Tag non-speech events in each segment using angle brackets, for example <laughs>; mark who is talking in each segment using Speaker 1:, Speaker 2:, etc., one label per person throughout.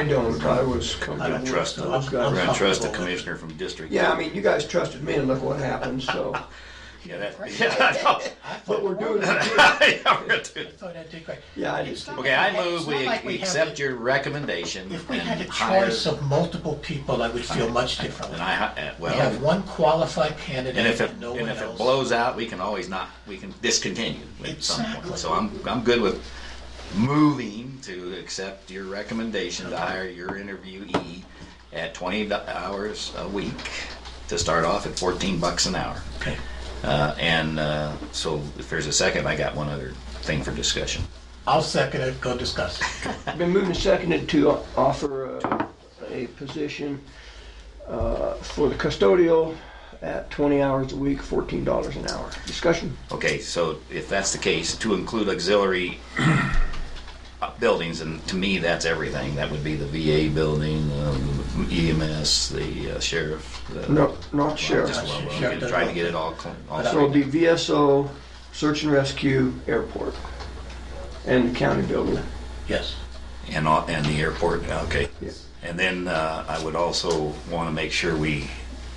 Speaker 1: I don't, I was.
Speaker 2: I don't trust them.
Speaker 1: I've
Speaker 2: I
Speaker 1: got-
Speaker 2: don't trust the
Speaker 3: Uncomfortable.
Speaker 2: commissioner from district.
Speaker 1: Yeah, I mean, you guys trusted me and look what happened, so.
Speaker 2: Yeah, that, <laughs> yeah, I know.
Speaker 3: I
Speaker 1: But
Speaker 3: thought,
Speaker 1: we're doing
Speaker 3: <laughs>
Speaker 2: Yeah,
Speaker 1: it.
Speaker 2: we're gonna do
Speaker 3: I
Speaker 2: it.
Speaker 3: thought I did great.
Speaker 1: Yeah, I just-
Speaker 3: It's not
Speaker 2: Okay, I
Speaker 3: like-
Speaker 2: move
Speaker 3: it's not like
Speaker 2: we
Speaker 3: have
Speaker 2: accept
Speaker 3: to-
Speaker 2: your recommendation
Speaker 3: If we had a
Speaker 2: and hire.
Speaker 3: choice of multiple people, I would feel much differently.
Speaker 2: And I, hi- uh,
Speaker 3: We have
Speaker 2: well,
Speaker 3: one qualified candidate
Speaker 2: and if it,
Speaker 3: and no one
Speaker 2: and if it
Speaker 3: else.
Speaker 2: blows out, we can always not, we can discontinue at some
Speaker 3: Exactly.
Speaker 2: point. So I'm, I'm good with moving to accept your recommendation to hire your interviewee at twenty do- hours a week to start off at fourteen bucks an hour.
Speaker 3: Okay.
Speaker 2: Uh, and uh, so if there's a second, I got one other thing for discussion.
Speaker 3: I'll second it, go discuss.
Speaker 1: I've Been moving seconded to offer uh, a position uh, for the custodial at 20 hours a week, $14 an hour. Discussion?
Speaker 2: Okay, so if that's the case, to include auxiliary <coughs> uh, buildings, and to me, that's everything. That would be the VA building, um, EMS, the uh, sheriff. the-
Speaker 1: No, not
Speaker 2: Well,
Speaker 1: sheriff.
Speaker 2: Just well, well,
Speaker 3: Sheriff
Speaker 2: get- trying to get it all clean. all
Speaker 1: So it'll
Speaker 2: straightened
Speaker 1: be VSO, search and rescue, airport, and the county building.
Speaker 3: Yes.
Speaker 2: out. And, all- and the airport, okay.
Speaker 1: Yeah.
Speaker 2: And then uh, I would also want to make sure we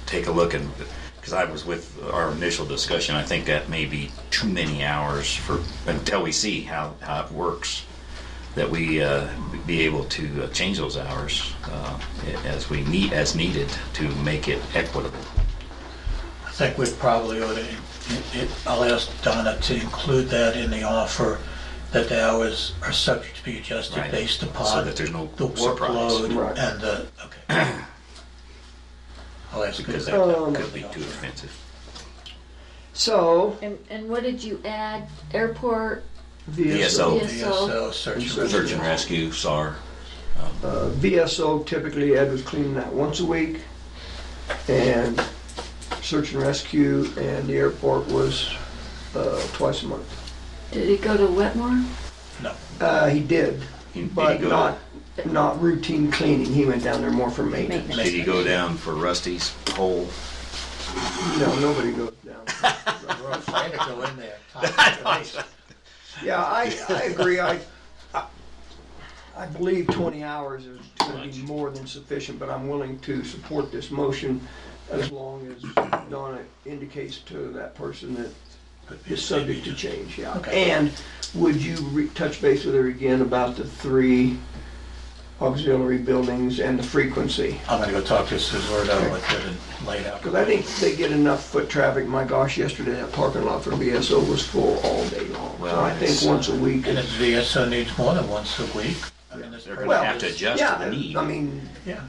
Speaker 2: take a look and, because I was with our initial discussion, I think that may be too many hours for, until we see how, how it works, that we uh, be able to uh, change those hours uh, as we need, as needed to make it equitable.
Speaker 3: I think we probably ought to, it- it- I'll ask Donna to include that in the offer, that the hours are subject to be adjusted
Speaker 2: Right.
Speaker 3: based
Speaker 2: So
Speaker 3: upon.
Speaker 2: that there's no
Speaker 3: The
Speaker 2: surprise.
Speaker 3: workload
Speaker 1: Right.
Speaker 3: and the, okay. I'll ask. her
Speaker 2: Because that
Speaker 3: that.
Speaker 2: that could be too expensive.
Speaker 1: So
Speaker 4: And, and what did you add? Airport,
Speaker 1: VSO,
Speaker 2: VSO.
Speaker 3: VSO, search and
Speaker 2: Search and
Speaker 3: rescue.
Speaker 2: rescue, SAR.
Speaker 1: Uh, VSO typically Ed was cleaning that once a week, and search and rescue and the airport was uh, twice a month.
Speaker 4: did it go to Wetmore?
Speaker 3: No,
Speaker 1: Uh, he did,
Speaker 2: Did
Speaker 1: but
Speaker 2: you go-
Speaker 1: not not routine cleaning. He went down there more for maintenance.
Speaker 4: Maintenance.
Speaker 2: Did you go down for Rusty's hole?
Speaker 1: No, nobody goes down.
Speaker 3: <laughs> we're afraid to go in there. <laughs> Toxic waste.
Speaker 1: Yeah, I, I agree. I, I- I believe 20 hours is going to be more than sufficient, but I'm willing to support this motion as long as Donna indicates to that person that
Speaker 3: Could be a
Speaker 1: is subject to
Speaker 3: safety
Speaker 1: change, yeah.
Speaker 3: Okay.
Speaker 1: And would you re- touch base with her again about the three auxiliary buildings and the frequency?
Speaker 3: I'm gonna go talk to Suzerato with it and lay it out.
Speaker 1: Because I think they get enough foot traffic. My gosh, yesterday that parking lot for BSO was full all day long. So
Speaker 2: Well,
Speaker 1: I think
Speaker 2: it's,
Speaker 1: once a week
Speaker 3: And
Speaker 1: is
Speaker 3: if VSO needs more than once a week, I mean, this.
Speaker 2: They're gonna
Speaker 1: Well,
Speaker 2: have to adjust
Speaker 1: Yeah,
Speaker 2: to the need.
Speaker 1: I mean,
Speaker 3: Yeah,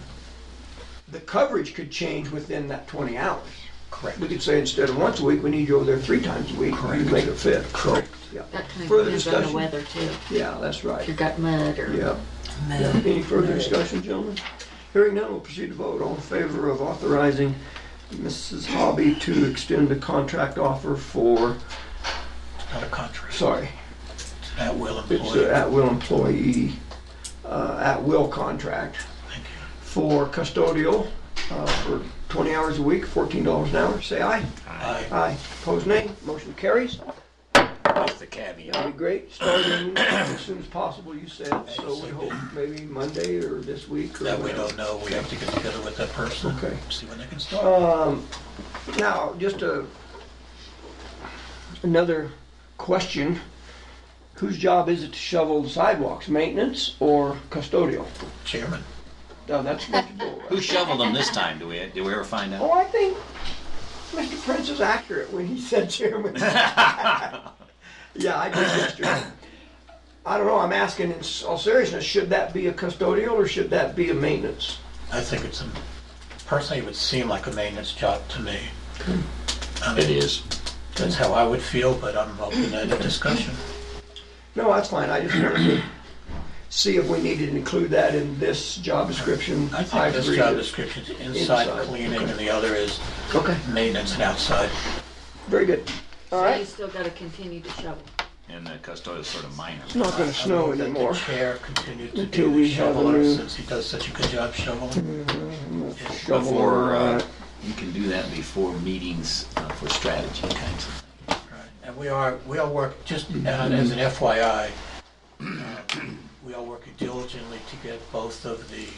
Speaker 1: the coverage could change within that 20 hours.
Speaker 3: correct.
Speaker 1: We could say instead of once a week, we need you over there three times a week. You
Speaker 3: Correct.
Speaker 1: make it fit. Correct.
Speaker 4: That kind
Speaker 1: Further
Speaker 4: of depends on the
Speaker 1: discussion?
Speaker 4: weather too.
Speaker 1: Yeah, that's
Speaker 4: If
Speaker 1: right.
Speaker 4: you got mud or.
Speaker 1: Yeah. Yeah. Any further discussion, gentlemen? Hearing none, we'll proceed to vote. All in favor of authorizing Mrs. Hobby to extend the contract offer for,
Speaker 3: It's not a contract,
Speaker 1: sorry,
Speaker 3: it's an at-will
Speaker 1: it's an
Speaker 3: employee.
Speaker 1: at-will employee, uh, at-will contract
Speaker 3: Thank you.
Speaker 1: for custodial uh, for 20 hours a week, $14 an hour. Say aye.
Speaker 3: I,
Speaker 1: Aye. Opposed, nay. Motion carries.
Speaker 2: That's the caveat.
Speaker 1: That'd be great. Starting as soon as possible, you said. So we hope maybe Monday or this week or
Speaker 3: that we
Speaker 1: whatever.
Speaker 3: don't know, we have to get together with that person,
Speaker 1: Okay.
Speaker 3: see when they can start.
Speaker 1: Um, now, just a, another question. Whose job is it to shovel the sidewalks, maintenance or custodial?
Speaker 3: Chairman,
Speaker 1: No, that's what you do.
Speaker 2: <laughs> Who shoveled them this time? Do we, did we ever find
Speaker 1: Oh,
Speaker 2: out?
Speaker 1: I think Mr. Prince is accurate when he said chairman. Yeah, I did yesterday. I don't know, I'm asking in all seriousness, should that be a custodial or should that be a maintenance?
Speaker 3: I think it's, a personally, it would seem like a maintenance job to me. I
Speaker 2: It
Speaker 3: mean,
Speaker 2: is.
Speaker 3: That's how I would feel, but I'm open to the discussion.
Speaker 1: No, that's fine, I just wanted to see if we needed to include that in this job description.
Speaker 3: I think this
Speaker 1: agree
Speaker 3: job
Speaker 1: that-
Speaker 3: description's inside
Speaker 1: Inside,
Speaker 3: cleaning
Speaker 1: okay.
Speaker 3: and the other is
Speaker 1: Okay,
Speaker 3: maintenance and outside.
Speaker 1: very good. All
Speaker 4: So you
Speaker 1: right,
Speaker 4: still gotta continue to shovel.
Speaker 2: And the custodial is sort of minor.
Speaker 1: it's not gonna
Speaker 3: I
Speaker 1: snow
Speaker 3: move that the
Speaker 1: anymore.
Speaker 3: Chair continued to
Speaker 1: Until
Speaker 3: be
Speaker 1: we
Speaker 3: the
Speaker 1: have a
Speaker 3: shoveler
Speaker 1: new- Mm-hmm.
Speaker 3: since he does such a good job shoveling.
Speaker 1: Shovel
Speaker 2: Before,
Speaker 1: around.
Speaker 2: uh, you can do that before meetings uh, for strategy kinds of things.
Speaker 3: And <clears throat> we are, we are work, just uh, as an FYI, uh, we are working diligently diligently to get both of the